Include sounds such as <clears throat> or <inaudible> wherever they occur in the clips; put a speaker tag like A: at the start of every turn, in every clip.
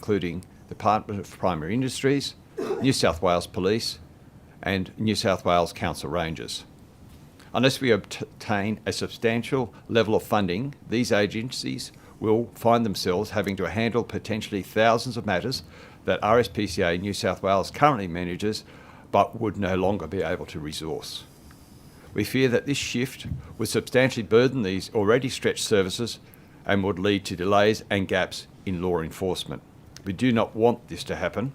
A: including the Department of Primary Industries, New South Wales Police, and New South Wales Council Rangers. Unless we obtain a substantial level of funding, these agencies will find themselves having to handle potentially thousands of matters that RSPCA New South Wales currently manages but would no longer be able to resource. We fear that this shift would substantially burden these already stretched services and would lead to delays and gaps in law enforcement. We do not want this to happen.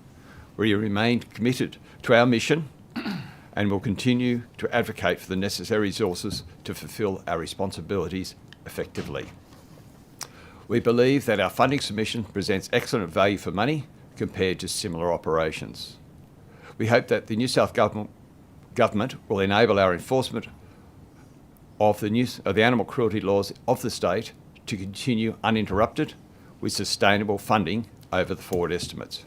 A: We remain committed to our mission <clears throat> and will continue to advocate for the necessary resources to fulfil our responsibilities effectively. We believe that our funding submission presents excellent value for money compared to similar operations. We hope that the New South Government government will enable our enforcement of the, new, of the animal cruelty laws of the state to continue uninterrupted with sustainable funding over the forward estimates.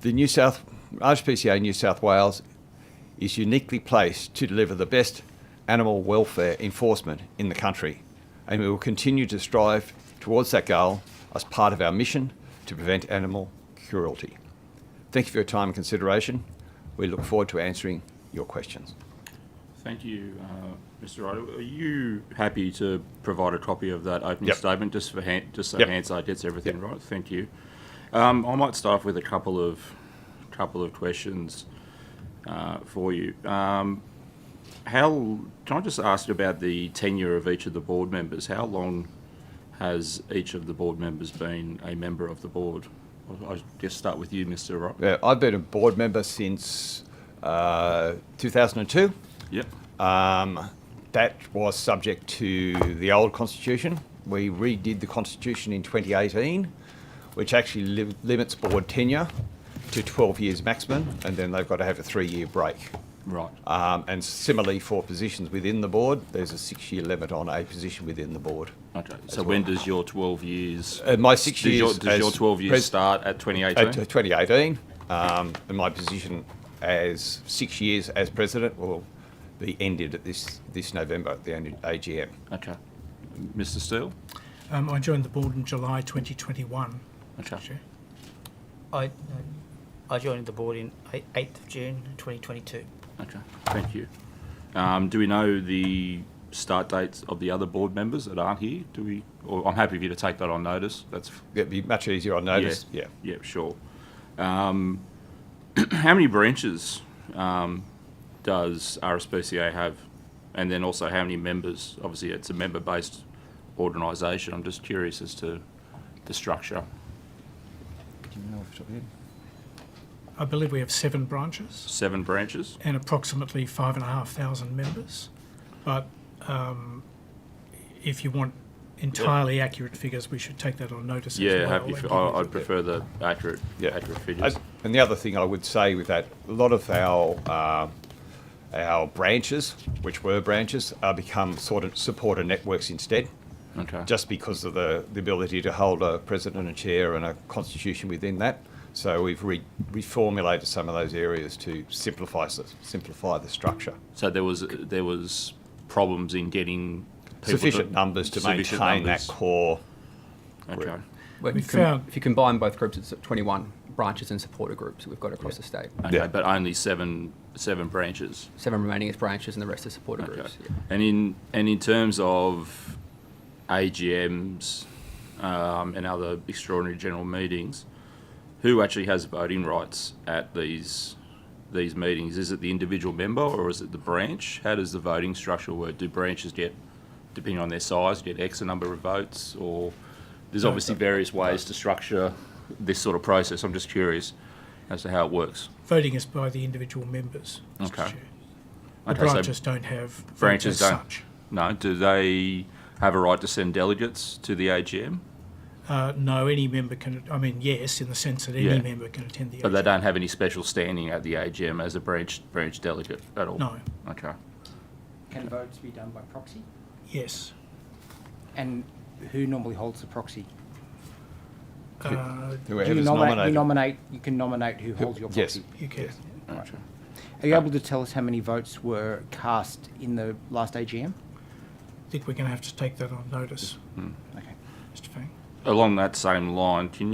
A: The New South RSPCA New South Wales is uniquely placed to deliver the best animal welfare enforcement in the country, and we will continue to strive towards that goal as part of our mission to prevent animal cruelty. Thank you for your time and consideration. We look forward to answering your questions.
B: Thank you, uh, Mr. Ryder. Are you happy to provide a copy of that opening
A: Yep.
B: statement just for Han- just so
A: Yep.
B: Hansard gets everything right? Thank you. Um, I might start with a couple of couple of questions uh, for you. Um, how can I just ask about the tenure of each of the board members? How long has each of the board members been a member of the board? I- I guess start with you, Mr. Ryder.
A: Yeah, Uh, I've been a board member since uh, 2002.
B: Yep.
A: Um, that was subject to the old constitution. We redid the constitution in 2018, which actually li- limits board tenure to 12 years maximum, and then they've got to have a three year break.
B: Right.
A: Um, and similarly, for positions within the board, there's a six year limit on a position within the board.
B: Okay, so when does your 12 years?
A: Uh, my six
B: does Your,
A: years
B: does your
A: as
B: 12 years
A: pres-
B: start at 2018?
A: Uh, t- 2018, um, and my position as six years as president will be ended at this, this November at the annual AGM.
B: okay. Mr. Steele?
C: Um, I joined the board in July 2021.
B: Okay.
C: Chair.
D: I, uh, I joined the board in eight- 8th of June 2022.
B: Okay, thank you. Um, do we know the start dates of the other board members that aren't here? Do we? Or I'm happy for you to take that on notice. That's
A: It'd be much easier on notice. Yeah.
B: yeah, sure. Um, <clears throat> how many branches um, does RSPCA have? And then also how many members? Obviously, it's a member-based organisation. I'm just curious as to the structure.
C: I believe we have seven branches
B: Seven branches.
C: and approximately five and a half thousand members. But um, if you want entirely accurate figures, we should take that on notice. as
B: Yeah,
C: well
B: happy.
C: and
B: For,
C: give
B: I,
C: you-
B: I'd prefer the accurate,
A: Yeah.
B: accurate figures.
A: And- And the other thing I would say with that, a lot of our um, our branches, which were branches, are become sort of supporter networks instead,
B: Okay.
A: just because of the, the ability to hold a president and chair and a constitution within that. So we've re- reformulated some of those areas to simplify s- simplify the structure.
B: so there was there was problems in getting people
A: sufficient numbers to
B: sufficient
A: maintain
B: numbers.
A: that core.
B: Okay.
E: Well,
C: We
E: if, you com-
C: found-
E: if you combine both groups, it's 21 branches and supporter groups that we've got across the state.
B: Okay,
A: Yeah.
B: but only seven seven branches.
E: Seven remaining as branches and the rest are supporter
B: Okay.
E: groups. yeah.
B: And in and in terms of AGMs um, and other extraordinary general meetings, who actually has voting rights at these these meetings? Is it the individual member or is it the branch? How does the voting structure work? Do branches get, depending on their size, get X number of votes? Or there's obviously various ways to structure this sort of process. I'm just curious as to how it works.
C: Voting is by the individual members. Mr.
B: Okay.
C: Chair. The
B: Okay, so-
C: branches don't have votes
B: Branches
C: as
B: don't.
C: such.
B: No, do they have a right to send delegates to the AGM?
C: Uh, no, any member can. I mean, yes, in the sense that any
B: Yeah.
C: member can attend the.
B: But they
C: AGM.
B: don't have any special standing at the AGM as a branch branch delegate at all.
C: No.
B: Okay.
F: Can votes be done by proxy?
C: Yes.
F: And who normally holds the proxy?
C: Uh,
F: Do you
A: Whoever's
F: nominate, you
A: nominated.
F: nominate, you can nominate who holds your
A: yes.
F: proxy.
C: you can.
B: Gotcha.
F: Are you able to tell us how many votes were cast in the last AGM?
C: I think we're going to have to take that on notice,
F: Okay.
C: Mr. Fang.
B: Along that same line, can